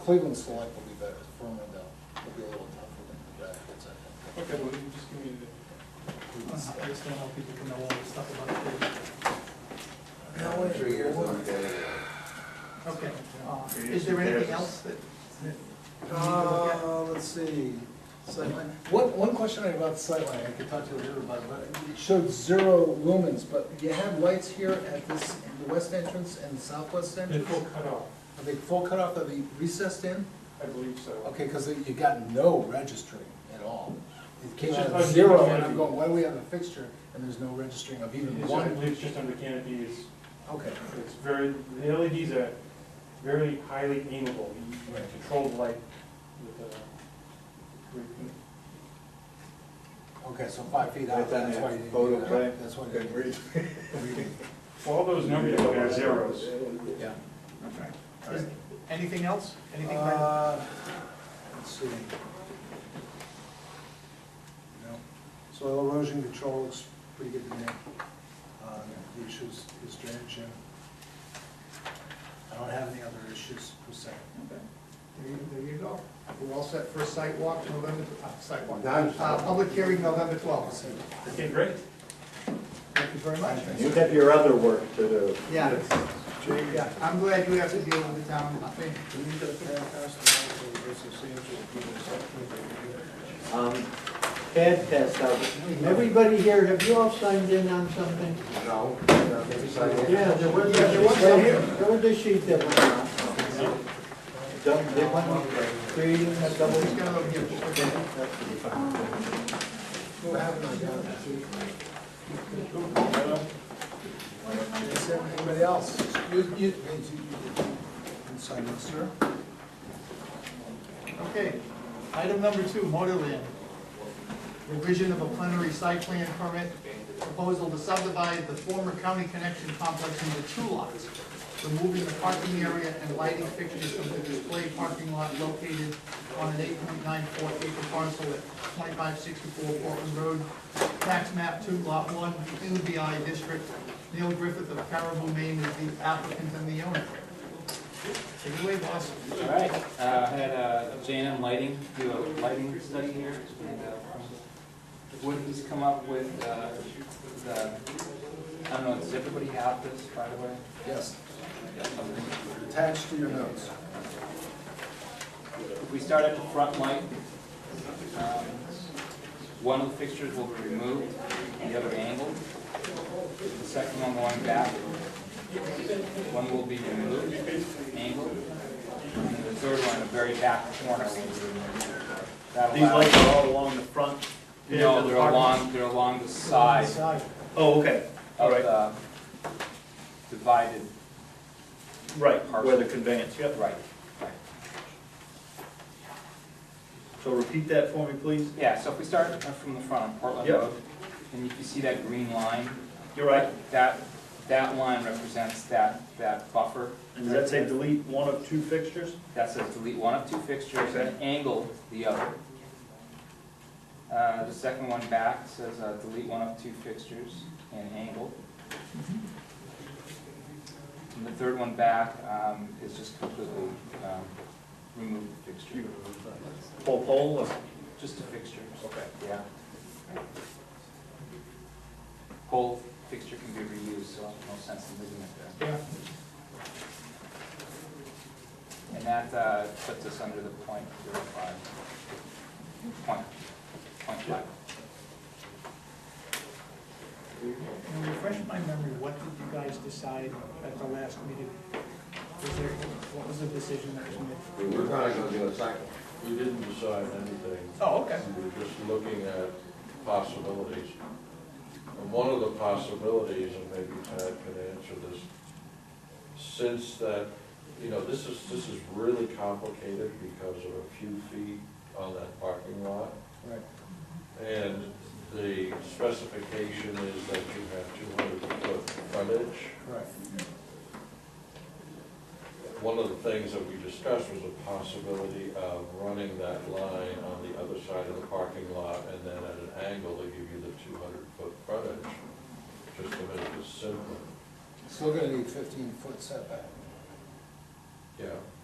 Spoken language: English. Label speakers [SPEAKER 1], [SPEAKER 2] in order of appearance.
[SPEAKER 1] Cleveland Select will be better, Farmingdale will be a little tougher than the Rapids, I think.
[SPEAKER 2] Okay, well, you just give me the, I just don't know how people can know all this stuff about it.
[SPEAKER 3] I'm sure yours don't get it.
[SPEAKER 2] Okay, uh, is there anything else that?
[SPEAKER 1] Uh, let's see, sightline, one, one question I have about the sightline, I could talk to you later about, it, but it showed zero lumens, but you had lights here at this, the west entrance and the southwest
[SPEAKER 2] It
[SPEAKER 1] entrance?
[SPEAKER 2] will cut off,
[SPEAKER 1] Are they full cutoff of the recessed in?
[SPEAKER 2] I believe so.
[SPEAKER 1] Okay, because you got no registering at all. It came
[SPEAKER 2] It's
[SPEAKER 1] out
[SPEAKER 2] just
[SPEAKER 1] of
[SPEAKER 2] like
[SPEAKER 1] zero,
[SPEAKER 2] the
[SPEAKER 1] and I'm
[SPEAKER 2] canopy.
[SPEAKER 1] going, why do we have a fixture and there's no registering of even
[SPEAKER 2] It's- I
[SPEAKER 1] one?
[SPEAKER 2] believe it's just under canopy, it's,
[SPEAKER 1] Okay,
[SPEAKER 2] it's very, the LEDs are very highly aimable, you you
[SPEAKER 1] Right.
[SPEAKER 2] control the light with, uh, with-
[SPEAKER 1] okay, so five feet out,
[SPEAKER 3] That's on
[SPEAKER 1] that's
[SPEAKER 3] the
[SPEAKER 1] why you didn't
[SPEAKER 3] photo
[SPEAKER 1] do that.
[SPEAKER 3] plan.
[SPEAKER 1] That's why you
[SPEAKER 3] Good
[SPEAKER 1] didn't.
[SPEAKER 3] read.
[SPEAKER 2] well, all those numbers you look at are zeros.
[SPEAKER 1] Yeah.
[SPEAKER 4] Is- Anything else? Anything? Brandon?
[SPEAKER 1] Uh, Let's see. No. Soil erosion control looks pretty good to me. Uh, The issues is drainage. and I don't have any other issues per se.
[SPEAKER 4] Okay. There you, there you go. We're all set for a site walk November, uh, site walk,
[SPEAKER 3] Done.
[SPEAKER 4] uh, public hearing November twelfth.
[SPEAKER 2] Okay, great.
[SPEAKER 4] Thank you very much.
[SPEAKER 3] You have your other work to do.
[SPEAKER 4] Yeah, yeah, I'm glad you have to deal with the town. I think.
[SPEAKER 3] Um, CAD test out.
[SPEAKER 5] Everybody here, have you all signed in on something?
[SPEAKER 3] No.
[SPEAKER 5] Yeah, there was,
[SPEAKER 4] Yeah, there was some here.
[SPEAKER 5] there was a sheet that went out.
[SPEAKER 3] Don't, they want me creating a double.
[SPEAKER 4] Just gonna look here.
[SPEAKER 1] What happened, I got it. Is there anybody else? You, you, you, you sign this, sir?
[SPEAKER 4] Okay, item number two, Motorland. Revision of a plenary site plan permit, proposal to subdivide the former county connection complex into two lots, removing the parking area and lighting fixtures from the display parking lot located on an eight point nine four acre parcel at twenty-five sixty-four Portland Road, tax map two, lot one, UBI district. Neil Griffith of Caribou, Maine is the applicant and the owner. Take it away, boss.
[SPEAKER 6] All right, uh, I had uh, J and M Lighting do a lighting study here, and uh, Wooden's come up with uh, the, I don't know, does everybody have this, by the way?
[SPEAKER 1] Yes. Attached to your notes.
[SPEAKER 6] If we start at the front light, um, one of the fixtures will be removed, the other angled. The second one going back, one will be removed, angled, and the third one, in the very back corner will be removed. That
[SPEAKER 7] These
[SPEAKER 6] allows-
[SPEAKER 7] lights are all along the front?
[SPEAKER 6] No, they're along, they're along the side
[SPEAKER 7] Oh, okay,
[SPEAKER 6] of
[SPEAKER 7] Alright.
[SPEAKER 6] the divided,
[SPEAKER 7] right, where the conveyance, yep.
[SPEAKER 6] right.
[SPEAKER 7] So repeat that for me, please.
[SPEAKER 6] Yeah, so if we start from the front on Portland
[SPEAKER 7] Yep.
[SPEAKER 6] Road, and if you see that green line,
[SPEAKER 7] You're right.
[SPEAKER 6] that, that line represents that, that buffer.
[SPEAKER 7] And does that say delete one of two fixtures?
[SPEAKER 6] That says delete one of two fixtures and angle the other. Uh, the second one back says uh, delete one of two fixtures and angle. And the third one back, um, is just completely, um, remove the fixture,
[SPEAKER 7] Whole pole or?
[SPEAKER 6] just the fixtures.
[SPEAKER 7] Okay.
[SPEAKER 6] Yeah. Whole fixture can be reused, so no sense in leaving it there.
[SPEAKER 4] Yeah.
[SPEAKER 6] And that uh, puts us under the point zero five, point, point five.
[SPEAKER 8] Now, refresh my memory, what did you guys decide at the last meeting? Was there, what was the decision that was made?
[SPEAKER 3] We were gonna go do a cycle.
[SPEAKER 9] We didn't decide anything,
[SPEAKER 4] Oh, okay.
[SPEAKER 9] we were just looking at possibilities. And one of the possibilities, and maybe Tad can answer this, since that, you know, this is, this is really complicated because of a few feet on that parking lot.
[SPEAKER 1] Right.
[SPEAKER 9] And the specification is that you have two hundred foot frontage.
[SPEAKER 1] Correct.
[SPEAKER 9] One of the things that we discussed was a possibility of running that line on the other side of the parking lot and then at an angle to give you the two hundred foot frontage, just to make it simpler.
[SPEAKER 1] Still gonna need fifteen foot setback.
[SPEAKER 9] Yeah,